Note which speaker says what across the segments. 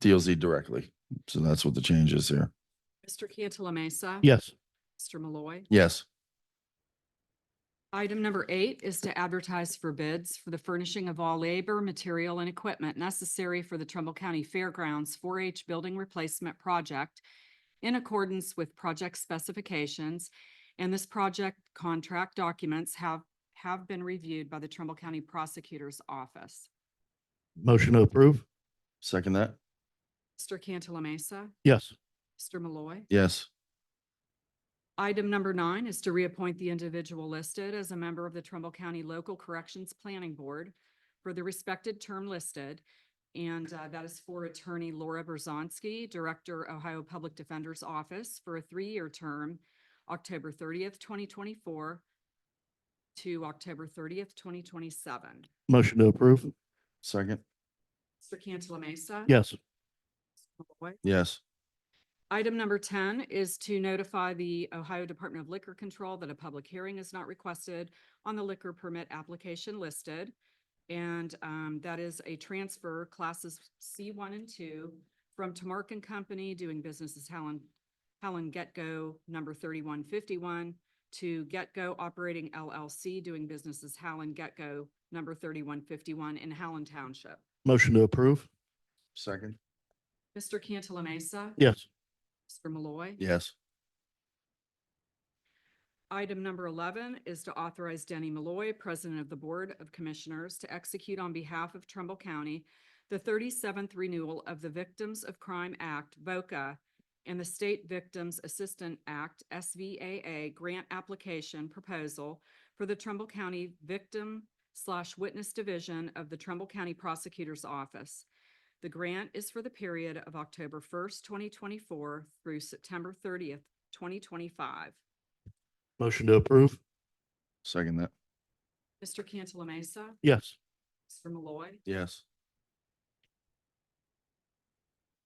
Speaker 1: DLZ directly. So that's what the change is here.
Speaker 2: Mr. Cantala Mesa.
Speaker 3: Yes.
Speaker 2: Mr. Malloy.
Speaker 1: Yes,
Speaker 2: Item number eight is to advertise for bids for the furnishing of all labor, material, and equipment necessary for the Trumbull County Fairgrounds 4-H Building Replacement Project in accordance with project specifications, and this project contract documents have, have been reviewed by the Trumbull County Prosecutor's Office.
Speaker 3: Motion to approve?
Speaker 1: second that.
Speaker 2: Mr. Cantala Mesa.
Speaker 3: Yes.
Speaker 2: Mr. Malloy.
Speaker 1: Yes,
Speaker 2: Item number nine is to reappoint the individual listed as a member of the Trumbull County Local Corrections Planning Board for the respected term listed. And uh, that is for Attorney Laura Berzonski, Director, Ohio Public Defender's Office, for a three-year term, October thirtieth, twenty twenty-four to October thirtieth, twenty twenty-seven.
Speaker 3: Motion to approve?
Speaker 1: second.
Speaker 2: Mr. Cantala Mesa.
Speaker 3: Yes.
Speaker 2: Malloy.
Speaker 1: Yes,
Speaker 2: Item number ten is to notify the Ohio Department of Liquor Control that a public hearing is not requested on the liquor permit application listed. And um, that is a transfer classes C one and two from Tamark and Company doing business as Helen, Helen Get-Go number thirty-one fifty-one to Get-Go Operating LLC doing business as Helen Get-Go number thirty-one fifty-one in Howland Township.
Speaker 3: Motion to approve?
Speaker 1: second.
Speaker 2: Mr. Cantala Mesa.
Speaker 3: Yes.
Speaker 2: Mr. Malloy.
Speaker 1: Yes,
Speaker 2: Item number eleven is to authorize Denny Malloy, President of the Board of Commissioners, to execute on behalf of Trumbull County the thirty-seventh renewal of the Victims of Crime Act, VOCA, and the State Victims Assistant Act, SVAA, grant application proposal for the Trumbull County Victim slash Witness Division of the Trumbull County Prosecutor's Office. The grant is for the period of October first, twenty twenty-four through September thirtieth, twenty twenty-five.
Speaker 3: Motion to approve?
Speaker 1: second that.
Speaker 2: Mr. Cantala Mesa.
Speaker 3: Yes.
Speaker 2: Mr. Malloy.
Speaker 1: Yes,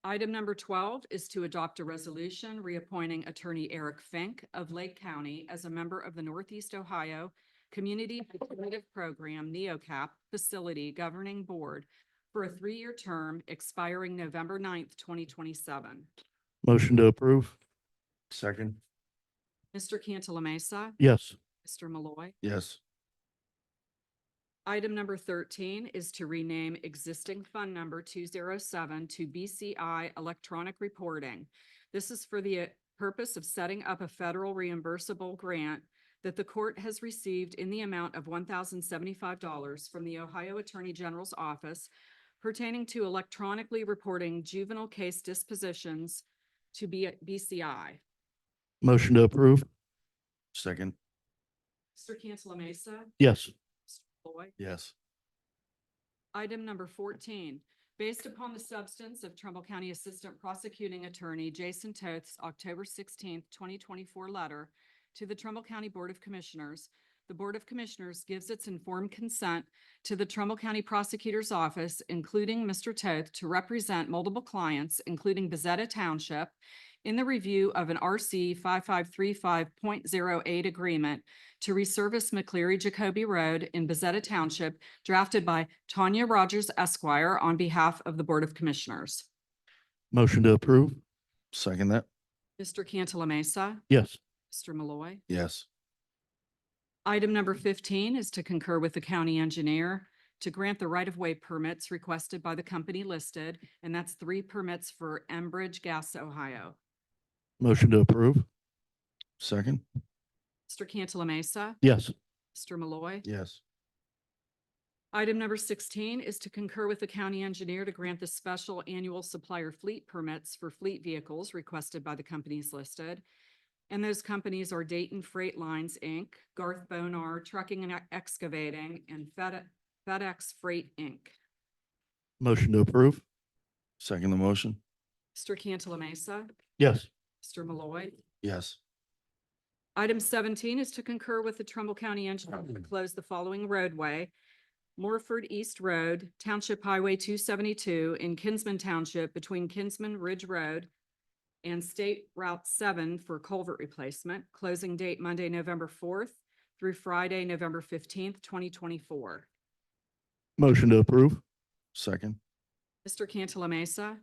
Speaker 2: Item number twelve is to adopt a resolution reappointing Attorney Eric Fink of Lake County as a member of the Northeast Ohio Community Alternative Program E NeoCap Facility Governing Board for a three-year term expiring November 9th, twenty twenty-seven.
Speaker 3: Motion to approve?
Speaker 1: second.
Speaker 2: Mr. Cantala Mesa.
Speaker 3: Yes.
Speaker 2: Mr. Malloy.
Speaker 1: Yes,
Speaker 2: Item number thirteen is to rename existing fund number two zero seven to BCI Electronic Reporting. This is for the uh, purpose of setting up a federal reimbursable grant that the court has received in the amount of one thousand seventy-five dollars from the Ohio Attorney General's Office pertaining to electronically reporting juvenile case dispositions to B- BCI.
Speaker 3: Motion to approve?
Speaker 1: second.
Speaker 2: Mr. Cantala Mesa.
Speaker 3: Yes.
Speaker 2: Mr. Malloy.
Speaker 1: Yes,
Speaker 2: Item number fourteen, based upon the substance of Trumbull County Assistant Prosecuting Attorney Jason Toth's October sixteenth, twenty twenty-four letter to the Trumbull County Board of Commissioners, the Board of Commissioners gives its informed consent to the Trumbull County Prosecutor's Office, including Mr. Toth, to represent multiple clients, including Bezetta Township, in the review of an RC five-five-three-five-point-zero-eight agreement to resurface McCleary Jacoby Road in Bezetta Township drafted by Tanya Rogers Esquire on behalf of the Board of Commissioners.
Speaker 3: Motion to approve?
Speaker 1: second that.
Speaker 2: Mr. Cantala Mesa,
Speaker 3: Yes.
Speaker 2: Mr. Malloy.
Speaker 1: Yes,
Speaker 2: Item number fifteen is to concur with the county engineer to grant the right-of-way permits requested by the company listed, and that's three permits for Enbridge Gas, Ohio.
Speaker 3: Motion to approve?
Speaker 1: second.
Speaker 2: Mr. Cantala Mesa,
Speaker 3: Yes.
Speaker 2: Mr. Malloy.
Speaker 1: Yes,
Speaker 2: Item number sixteen is to concur with the county engineer to grant the special annual supplier fleet permits for fleet vehicles requested by the companies listed. And those companies are Dayton Freight Lines, Inc., Garth Bonar Trucking and Excavating, and Fed- FedEx Freight, Inc.
Speaker 3: Motion to approve?
Speaker 1: second the motion.
Speaker 2: Mr. Cantala Mesa,
Speaker 3: Yes.
Speaker 2: Mr. Malloy.
Speaker 1: Yes,
Speaker 2: Item seventeen is to concur with the Trumbull County Engineer to close the following roadway. Morford East Road, Township Highway two seventy-two in Kinsman Township between Kinsman Ridge Road and State Route seven for culvert replacement, closing date Monday, November fourth through Friday, November fifteenth, twenty twenty-four.
Speaker 3: Motion to approve?
Speaker 1: second.
Speaker 2: Mr. Cantala Mesa,